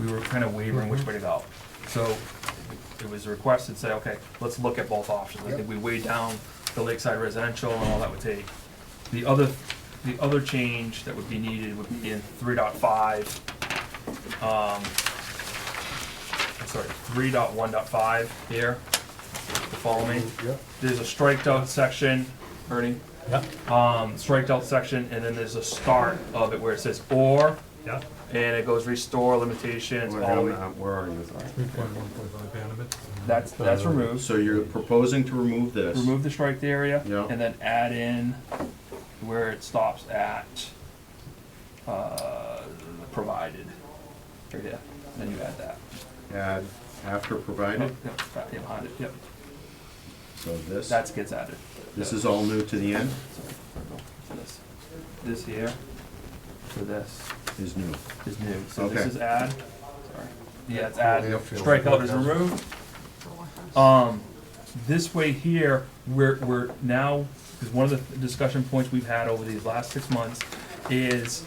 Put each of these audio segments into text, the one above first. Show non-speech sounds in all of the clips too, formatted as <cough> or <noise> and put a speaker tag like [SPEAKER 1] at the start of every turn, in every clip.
[SPEAKER 1] we were kind of wavering which way to go. So it was requested, say, okay, let's look at both options. I think we weighed down the lakeside residential and all that would take. The other, the other change that would be needed would be in three dot five. Um, I'm sorry, three dot one dot five here, You follow me?
[SPEAKER 2] Yeah.
[SPEAKER 1] There's a striked out section, Ernie,
[SPEAKER 2] Yeah.
[SPEAKER 1] um, striked out section, and then there's a start of it where it says or,
[SPEAKER 2] Yeah.
[SPEAKER 1] and it goes restore limitations,
[SPEAKER 3] Where
[SPEAKER 1] all the
[SPEAKER 3] am
[SPEAKER 1] way.
[SPEAKER 3] I- where are you? Sorry.
[SPEAKER 2] Three point one point five Bannerman.
[SPEAKER 1] That's, that's removed.
[SPEAKER 3] So you're proposing to remove this?
[SPEAKER 1] Remove the striked area,
[SPEAKER 3] Yeah.
[SPEAKER 1] and then add in where it stops at, uh, provided. Right here, then you add that.
[SPEAKER 3] Add after provided,
[SPEAKER 1] Yep, right behind it, yep,
[SPEAKER 3] so this,
[SPEAKER 1] that's gets added.
[SPEAKER 3] this is all new to the end,
[SPEAKER 1] This- This here, to this.
[SPEAKER 3] is new.
[SPEAKER 1] is new, so this
[SPEAKER 3] Okay.
[SPEAKER 1] is add, sorry, yeah, it's add,
[SPEAKER 2] Yep.
[SPEAKER 1] strikeout is removed. Um, this way here, we're, we're now, because one of the discussion points we've had over these last six months is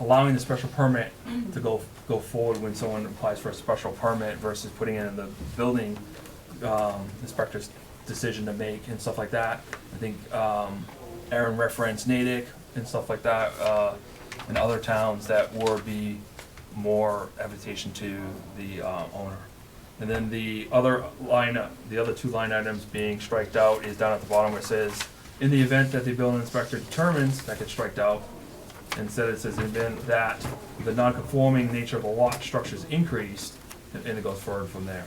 [SPEAKER 1] allowing the special permit to go, go forward when someone applies for a special permit versus putting it in the building, um, inspector's decision to make and stuff like that. I think, um, Aaron referenced Natick and stuff like that, uh, and other towns that would be more invitation to the, um, owner. And then the other line, the other two line items being striked out is down at the bottom where it says, in the event that the building inspector determines that gets striked out, instead it says, in the event that the non-conforming nature of a lot structure is increased, and and it goes forward from there.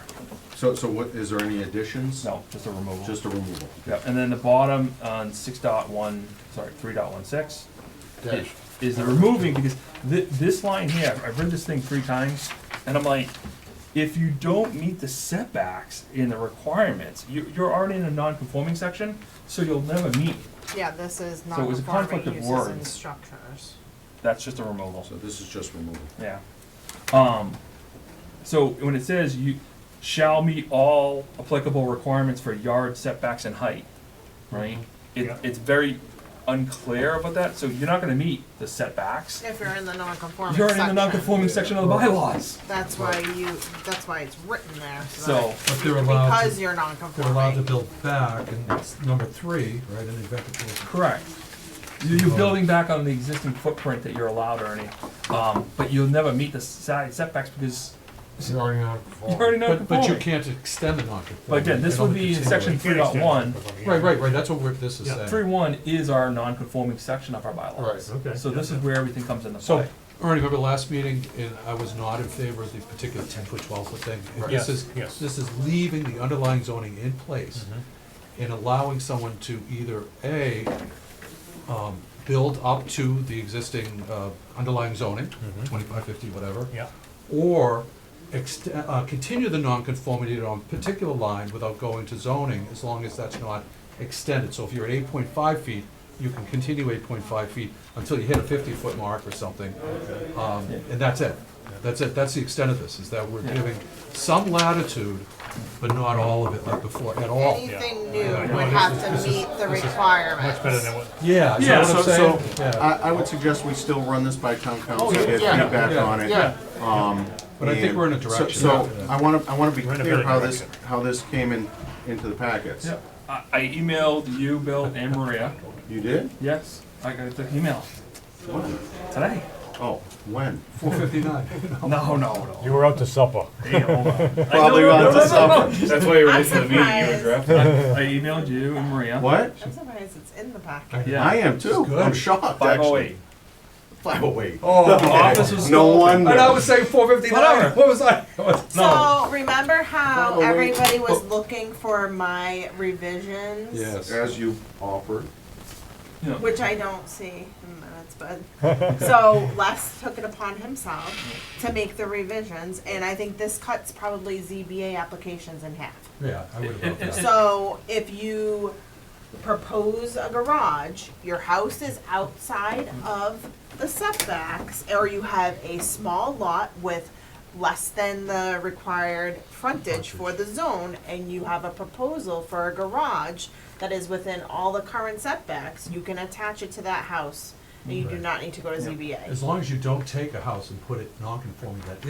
[SPEAKER 3] So, so what, is there any additions?
[SPEAKER 1] No, just a removal.
[SPEAKER 3] Just a removal?
[SPEAKER 1] Yeah, and then the bottom on six dot one, sorry, three dot one six,
[SPEAKER 2] Dash.
[SPEAKER 1] is the removing, because thi- this line here, I've read this thing three times, and I'm like, if you don't meet the setbacks in the requirements, you, you're already in a non-conforming section, so you'll never meet,
[SPEAKER 4] Yeah, this is
[SPEAKER 1] So it was a conflict
[SPEAKER 4] non-conforming
[SPEAKER 1] of
[SPEAKER 4] uses and
[SPEAKER 1] words.
[SPEAKER 4] structures.
[SPEAKER 1] that's just a removal.
[SPEAKER 3] So this is just removal.
[SPEAKER 1] Yeah. Um, so when it says you shall meet all applicable requirements for yard setbacks and height, right? It,
[SPEAKER 2] Mm-hmm. Yeah.
[SPEAKER 1] it's very unclear about that, so you're not gonna meet the setbacks.
[SPEAKER 4] If you're in the non-conforming
[SPEAKER 1] You're already in the
[SPEAKER 4] section.
[SPEAKER 1] non-conforming section of the bylaws,
[SPEAKER 4] That's why you, that's why it's written there, so
[SPEAKER 1] so,
[SPEAKER 4] that-
[SPEAKER 2] But they're allowed,
[SPEAKER 4] because
[SPEAKER 2] to-
[SPEAKER 4] you're
[SPEAKER 2] they're allowed to
[SPEAKER 4] non-conforming.
[SPEAKER 2] build back, and it's number three, right, in the event that they-
[SPEAKER 1] correct. You-
[SPEAKER 2] Mm-hmm.
[SPEAKER 1] You're building back on the existing footprint that you're allowed, Ernie, um, but you'll never meet the side setbacks because
[SPEAKER 5] It's already not
[SPEAKER 1] you're already
[SPEAKER 2] But, but you
[SPEAKER 1] non-conforming.
[SPEAKER 2] can't extend a non-conforming.
[SPEAKER 1] But again, this
[SPEAKER 2] It only
[SPEAKER 1] would be in
[SPEAKER 2] continues.
[SPEAKER 1] section three dot one,
[SPEAKER 2] Right, right, right, that's what we're, this is
[SPEAKER 5] Yeah.
[SPEAKER 2] saying.
[SPEAKER 1] three one is our non-conforming section of our bylaws.
[SPEAKER 5] Right, okay.
[SPEAKER 1] So this is where everything comes into
[SPEAKER 2] So,
[SPEAKER 1] play.
[SPEAKER 2] Ernie, remember last meeting, and I was not in favor of the particular ten foot, twelve foot thing? And
[SPEAKER 5] Right.
[SPEAKER 2] This
[SPEAKER 5] Yes,
[SPEAKER 2] is,
[SPEAKER 5] yes.
[SPEAKER 2] this is leaving the underlying zoning in place
[SPEAKER 5] Mm-hmm.
[SPEAKER 2] and allowing someone to either, A, um, build up to the existing, uh, underlying zoning,
[SPEAKER 5] Mhm.
[SPEAKER 2] twenty-five, fifty, whatever,
[SPEAKER 5] Yeah,
[SPEAKER 2] or ext- uh, continue the nonconformity on a particular line without going to zoning, as long as that's not extended. So if you're at eight point five feet, you can continue eight point five feet until you hit a fifty-foot mark or something. Um, And that's it. That's it. That's the extent of this, is that we're
[SPEAKER 1] Yeah.
[SPEAKER 2] giving some latitude, but not all of it like before, at all.
[SPEAKER 4] Anything new
[SPEAKER 5] Yeah.
[SPEAKER 4] would
[SPEAKER 5] No,
[SPEAKER 4] have
[SPEAKER 5] this is-
[SPEAKER 4] to
[SPEAKER 5] this is-
[SPEAKER 4] meet the
[SPEAKER 5] this is
[SPEAKER 4] requirements.
[SPEAKER 5] much better than what,
[SPEAKER 2] Yeah, you
[SPEAKER 1] Yeah,
[SPEAKER 2] know what I'm
[SPEAKER 3] So,
[SPEAKER 2] saying?
[SPEAKER 3] so,
[SPEAKER 2] Yeah.
[SPEAKER 3] I, I would suggest we still run this by town council,
[SPEAKER 5] yeah,
[SPEAKER 3] get
[SPEAKER 5] yeah,
[SPEAKER 3] feedback
[SPEAKER 2] yeah,
[SPEAKER 3] on it.
[SPEAKER 5] yeah.
[SPEAKER 3] Um,
[SPEAKER 2] But I think
[SPEAKER 3] and
[SPEAKER 2] we're in a
[SPEAKER 3] so-
[SPEAKER 2] direction.
[SPEAKER 3] So, I wanna, I wanna be
[SPEAKER 5] We're in a
[SPEAKER 3] clear
[SPEAKER 5] better
[SPEAKER 3] how this,
[SPEAKER 5] direction.
[SPEAKER 3] how this came in, into the packets.
[SPEAKER 1] Yeah, I, I emailed you, Bill, and Maria.
[SPEAKER 3] You did?
[SPEAKER 1] Yes, I got the email
[SPEAKER 3] When? <laughs>
[SPEAKER 1] today.
[SPEAKER 3] Oh, when?
[SPEAKER 2] Four fifty-nine.
[SPEAKER 1] No, no, no.
[SPEAKER 5] you were out to supper.
[SPEAKER 1] Damn, hold on.
[SPEAKER 3] <laughs> Probably
[SPEAKER 1] no, no,
[SPEAKER 3] went
[SPEAKER 1] no,
[SPEAKER 3] to
[SPEAKER 1] no, no,
[SPEAKER 3] supper.
[SPEAKER 6] That's why you were
[SPEAKER 4] I'm
[SPEAKER 6] late for the meeting, you were
[SPEAKER 4] surprised.
[SPEAKER 6] drafting.
[SPEAKER 1] no. I emailed you and Maria.
[SPEAKER 3] What?
[SPEAKER 4] I'm surprised it's in the packet.
[SPEAKER 1] Yeah.
[SPEAKER 3] I am too.
[SPEAKER 2] good.
[SPEAKER 3] I'm shocked,
[SPEAKER 1] Five oh
[SPEAKER 3] actually.
[SPEAKER 1] eight.
[SPEAKER 3] Five oh eight.
[SPEAKER 2] Oh,
[SPEAKER 1] Office was
[SPEAKER 3] No
[SPEAKER 1] still open.
[SPEAKER 3] wonder.
[SPEAKER 2] and I was saying four fifty-nine,
[SPEAKER 1] Whatever.
[SPEAKER 2] what was I?
[SPEAKER 1] No.
[SPEAKER 4] So remember
[SPEAKER 3] By
[SPEAKER 4] how
[SPEAKER 3] the way-
[SPEAKER 4] everybody was looking for my revisions?
[SPEAKER 2] Yes.
[SPEAKER 3] As you offered.
[SPEAKER 1] You know,
[SPEAKER 4] Which I don't see in minutes, but, so Les took it upon himself to make the revisions, and I think this cuts probably ZBA applications in half.
[SPEAKER 2] Yeah, I would have voted that.
[SPEAKER 4] So if you propose a garage, your house is outside of the setbacks, or you have a small lot with less than the required frontage for the zone, and you have a proposal for a garage that is within all the current setbacks, you can attach it to that house, and you do
[SPEAKER 2] Right.
[SPEAKER 4] not need to go to
[SPEAKER 1] Yeah.
[SPEAKER 4] ZBA.
[SPEAKER 2] As long as you don't take a house and put it non-conforming, that is